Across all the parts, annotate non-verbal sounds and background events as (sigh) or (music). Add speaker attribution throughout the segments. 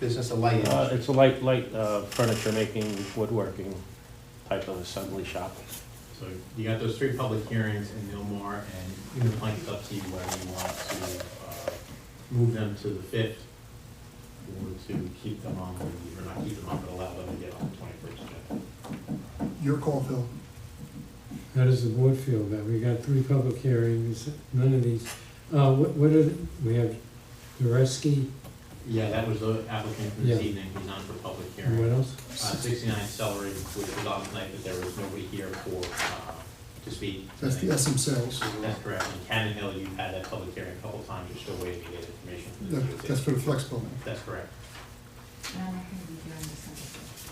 Speaker 1: business, a light
Speaker 2: Uh,
Speaker 1: industry?
Speaker 2: It's a light, light uh, furniture making, woodworking type of assembly shop.
Speaker 3: So you got those three public hearings in Millmore, and the plan's up to you whether you want to uh, move them to the fifth, or to keep them on, or not keep them on, but allow them to get on the twenty-first agenda.
Speaker 4: Your call, Phil.
Speaker 5: How does the board feel about, it? we got three public hearings, none of these, uh, what, what are, the- we have Dureski,
Speaker 3: Yeah, that was the applicant from this
Speaker 5: Yeah.
Speaker 3: evening, he's on for public
Speaker 5: and what
Speaker 3: hearing.
Speaker 5: else?
Speaker 3: Uh, Sixty-nine Celery, which was on tonight, but there was nobody here for, uh, to speak.
Speaker 4: That's the SM sales.
Speaker 3: That's correct, and Cannon Hill, you've had that public hearing a couple times, you're still waiting to get information from the
Speaker 4: That-
Speaker 3: DOT.
Speaker 4: That's for the flex building.
Speaker 3: That's correct.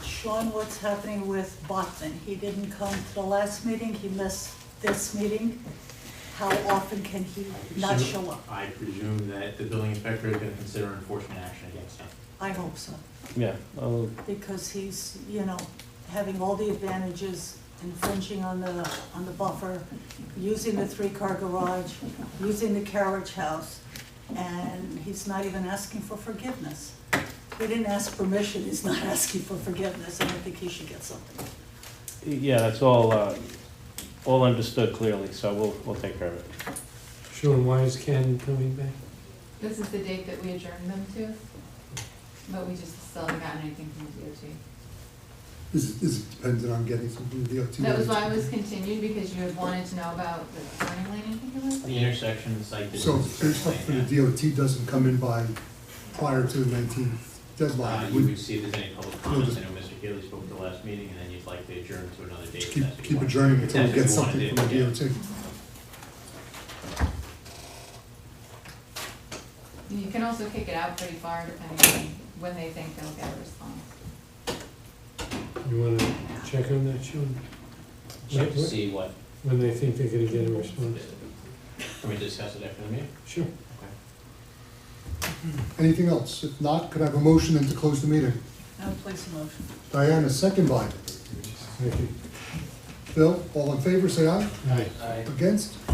Speaker 6: Sean, what's happening with Bachman? He didn't come to the last meeting, he missed this meeting. How often can he not
Speaker 3: Presume-
Speaker 6: show up?
Speaker 3: I presume that the building inspector is gonna consider enforcement action against him.
Speaker 6: I hope so,
Speaker 2: Yeah, uh,
Speaker 6: because he's, you know, having all the advantages, infringing on the, on the buffer, using the three-car garage, using the carriage house, and he's not even asking for forgiveness. He didn't ask permission, he's not (laughs) asking for forgiveness, and I think he should get something.
Speaker 2: yeah, that's all, uh, all understood clearly, so we'll, we'll take care of it.
Speaker 5: Sean, why is Ken coming back?
Speaker 7: This is the date that we adjourned them to, but we just still haven't gotten anything from the
Speaker 4: This is, this is dependent on getting some from the DOT.
Speaker 7: DOT. That was why it was continued, because you had wanted to know about the turning lane, I think it was?
Speaker 3: The intersection, the site
Speaker 4: So
Speaker 3: distance.
Speaker 4: if if the DOT doesn't come in by, prior to the nineteenth
Speaker 3: Uh,
Speaker 4: deadline,
Speaker 3: you
Speaker 4: we
Speaker 3: would see if there's any public comments, I know Mr. Haley spoke at the last meeting, and then you'd like to adjourn to another date. if
Speaker 4: keep,
Speaker 3: that's what you
Speaker 4: keep
Speaker 3: want.
Speaker 4: adjourning until we
Speaker 3: That's
Speaker 4: get
Speaker 3: what you wanna
Speaker 4: something
Speaker 3: do,
Speaker 4: from the
Speaker 3: yeah.
Speaker 4: DOT.
Speaker 7: You can also kick it out pretty far depending on when they think they'll get a response.
Speaker 5: You wanna check on that, Sean?
Speaker 3: Check to
Speaker 5: Wait, wait.
Speaker 3: see what,
Speaker 5: When they think they're gonna get a response?
Speaker 3: can we discuss it after the meeting?
Speaker 5: Sure.
Speaker 4: Anything else? If not, could I have a motion then to close the meeting?
Speaker 6: Now place a motion.
Speaker 4: Diana, second by
Speaker 5: Thank you.
Speaker 4: Phil, all in favor, say aye.
Speaker 5: Aye.
Speaker 4: Against?